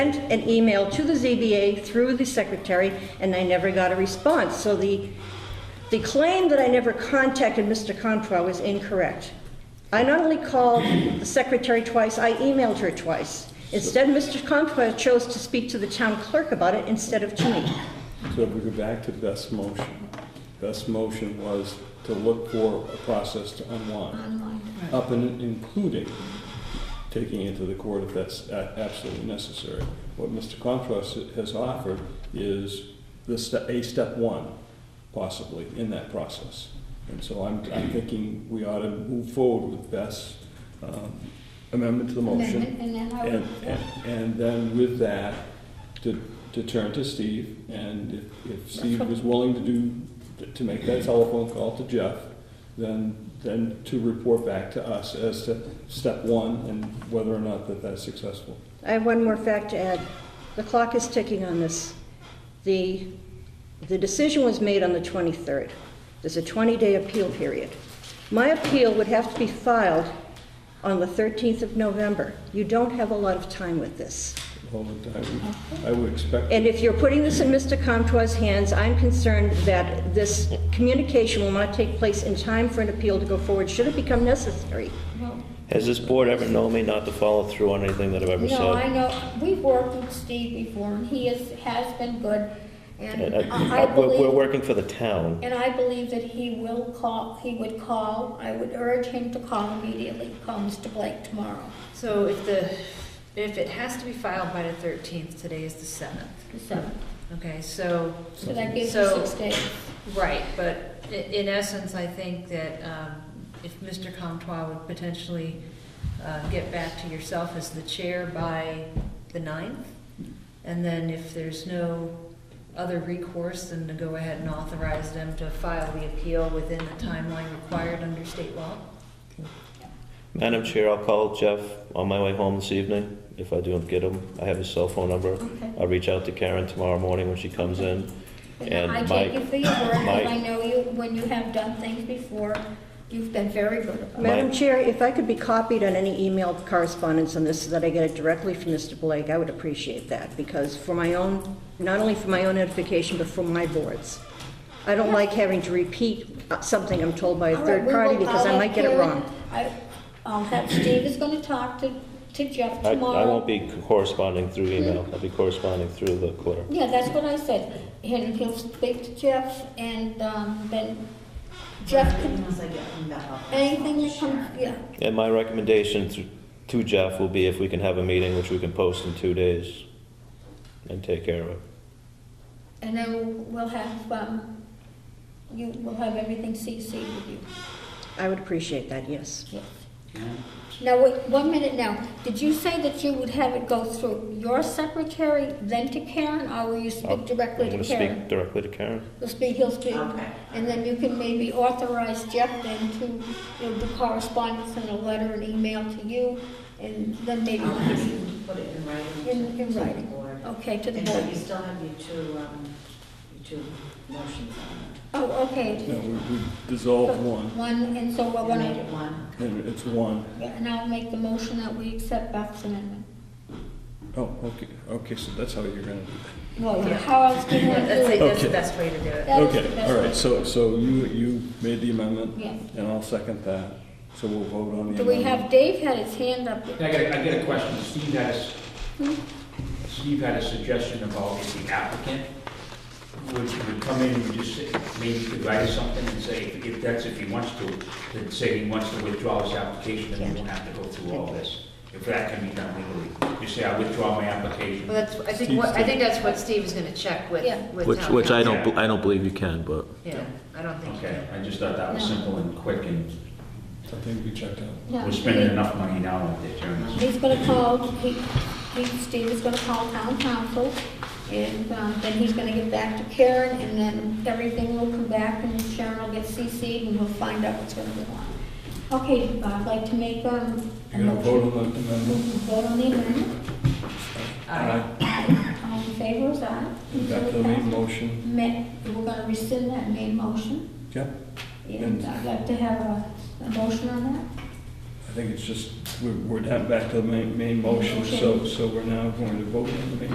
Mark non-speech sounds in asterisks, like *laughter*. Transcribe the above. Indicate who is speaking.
Speaker 1: sent an email to the ZBA through the secretary, and I never got a response. So the, the claim that I never contacted Mr. Controw is incorrect. I not only called the secretary twice, I emailed her twice. Instead, Mr. Controw chose to speak to the town clerk about it instead of to me.
Speaker 2: So if we go back to Beth's motion, Beth's motion was to look for a process to unwind. Up and including taking it to the court if that's a- absolutely necessary. What Mr. Contras has offered is the, ste- a step one possibly in that process. And so I'm, I'm thinking we ought to move forward with Beth's um, amendment to the motion.
Speaker 3: Amendment, and then I would-
Speaker 2: And, and- and then with that, to, to turn to Steve, and if, if Steve was willing to do, to make that telephone call to Jeff, then, then to report back to us as to step one and whether or not that that's successful.
Speaker 1: I have one more fact to add. The clock is ticking on this. The, the decision was made on the 23rd. There's a 20-day appeal period. My appeal would have to be filed on the 13th of November. You don't have a lot of time with this.
Speaker 2: All the time, I would expect,
Speaker 1: And if you're putting this in Mr. Comtois' hands, I'm concerned that this communication will not take place in time for an appeal to go forward, should it become necessary.
Speaker 4: Has this board ever known me not to follow through on anything that I've ever
Speaker 3: No, I
Speaker 4: said?
Speaker 3: know, we've worked with Steve before, and he is, has been good, and
Speaker 4: And
Speaker 3: I I
Speaker 4: I- We're we're
Speaker 3: believe,
Speaker 4: working for the town.
Speaker 3: and I believe that he will call, he would call, I would urge him to call immediately, call Mr. Blake tomorrow,
Speaker 5: So if the, if it has to be filed by the thirteenth, today is the seventh,
Speaker 3: the seventh.
Speaker 5: okay, so,
Speaker 3: So that gives you
Speaker 5: So-
Speaker 3: six days.
Speaker 5: right, but i- in essence, I think that, um, if Mr. Comtois would potentially, uh, get back to yourself as the chair by the ninth, and then if there's no other recourse, then to go ahead and authorize them to file the appeal within the timeline required under state law.
Speaker 4: Madam Chair, I'll call Jeff on my way home this evening, if I don't get him. I have his cell phone number.
Speaker 3: Okay.
Speaker 4: I'll reach out to Karen tomorrow morning when she comes in. And
Speaker 3: I
Speaker 4: my-
Speaker 3: take you for your word,
Speaker 4: my-
Speaker 3: and I know you, when you have done things before, you've been very good about it.
Speaker 1: Madam Chair, if I could be copied on any email correspondence on this so that I get it directly from Mr. Blake, I would appreciate that, because for my own, not only for my own edification, but for my boards. I don't like having to repeat uh, something I'm told by a
Speaker 3: All right,
Speaker 1: third
Speaker 3: we
Speaker 1: party
Speaker 3: will-
Speaker 1: because I
Speaker 3: I'll
Speaker 1: might get it
Speaker 3: have
Speaker 1: wrong.
Speaker 3: Karen- I- I'll have, Steve is gonna talk to, to Jeff
Speaker 4: I
Speaker 3: tomorrow.
Speaker 4: I won't be corresponding through email. I'll be corresponding through the clerk.
Speaker 3: Yeah, that's what I said, and he'll speak to Jeff, and, um, then Jeff can,
Speaker 6: Once I get them back up.
Speaker 3: anything that comes, yeah,
Speaker 4: And my recommendation to- to Jeff will be if we can have a meeting, which we can post in two days, and take care of it.
Speaker 3: and then we'll have, um, you, we'll have everything CC'd with you,
Speaker 1: I would appreciate that, yes.
Speaker 3: yes. Now, wait, one minute now, did you say that you would have it go through your secretary, then to Karen, or will you
Speaker 4: I'll-
Speaker 3: speak directly
Speaker 4: I'm
Speaker 3: to
Speaker 4: gonna
Speaker 3: Karen?
Speaker 4: speak directly to Karen.
Speaker 3: He'll speak, he'll speak.
Speaker 6: Okay.
Speaker 3: And then you can maybe authorize Jeff then to, you know, do correspondence and a letter and email to you, and then maybe,
Speaker 6: I'll ask you to put it in writing.
Speaker 3: In- in
Speaker 6: to the
Speaker 3: writing.
Speaker 6: board.
Speaker 3: okay, to the
Speaker 6: And but you
Speaker 3: board.
Speaker 6: still have your two, um, your two motions on
Speaker 3: Oh, okay.
Speaker 2: you know, we we dissolve one,
Speaker 3: One, and so
Speaker 5: Oh,
Speaker 6: there.
Speaker 3: we're
Speaker 6: You Make
Speaker 3: gonna,
Speaker 6: it one.
Speaker 2: and it's one.
Speaker 3: and I'll make the motion that we accept Beth's amendment.
Speaker 2: Oh, okay, okay, so that's how you're gonna do it.
Speaker 3: Well,
Speaker 5: Yeah.
Speaker 3: how else do you want to
Speaker 5: *laughs* That's,
Speaker 3: do
Speaker 5: the-
Speaker 3: it?
Speaker 5: that's the
Speaker 2: Okay.
Speaker 5: best way to do it.
Speaker 3: That is the
Speaker 2: Okay,
Speaker 3: best
Speaker 2: all
Speaker 3: way.
Speaker 2: right, so, so you, you made the amendment?
Speaker 3: Yeah.
Speaker 2: And I'll second that, so we'll vote on the
Speaker 3: Do we
Speaker 2: amendment.
Speaker 3: have, Dave had his hand up.
Speaker 7: I got, a- I got a question. Steve had a, s- Steve had a suggestion about if the applicant would, would come in and just say, maybe he could write something and say, if- if that's, if he wants to, then say he wants to withdraw his application, then we won't have to go through all this. If that can be done legally, you say, I withdraw my application.
Speaker 5: Well, that's, I think, what I think that's what Steve is gonna check with,
Speaker 3: Yeah.
Speaker 5: with
Speaker 4: Which,
Speaker 5: town
Speaker 4: which I
Speaker 7: don't
Speaker 4: don't,
Speaker 7: bel-
Speaker 4: I don't believe you can, but.
Speaker 5: council. Yeah, I don't think you
Speaker 7: Okay,
Speaker 5: can.
Speaker 7: I just thought that was
Speaker 3: No.
Speaker 7: simple and quick, and
Speaker 2: I think we checked out.
Speaker 3: No,
Speaker 7: we're spending enough money now on the attorneys.
Speaker 3: He's gonna call, he, he, Steve is gonna call town council, and, um, then he's gonna get back to Karen, and then everything will come back, and Sharon will get CC'd, and we'll find out what's gonna go on. Okay, I'd like to make, um, a
Speaker 2: You're gonna vote
Speaker 3: motion.
Speaker 2: on the amendment?
Speaker 3: Vote on the amendment. All in favor, is aye.
Speaker 2: Back to the main motion.
Speaker 3: Ma- we're gonna rescind that main motion,
Speaker 2: Yep.
Speaker 3: and I'd like to have a, a motion on that.
Speaker 2: I think it's just we're, we're not back to the main, main motion, so, so we're now going to vote on the main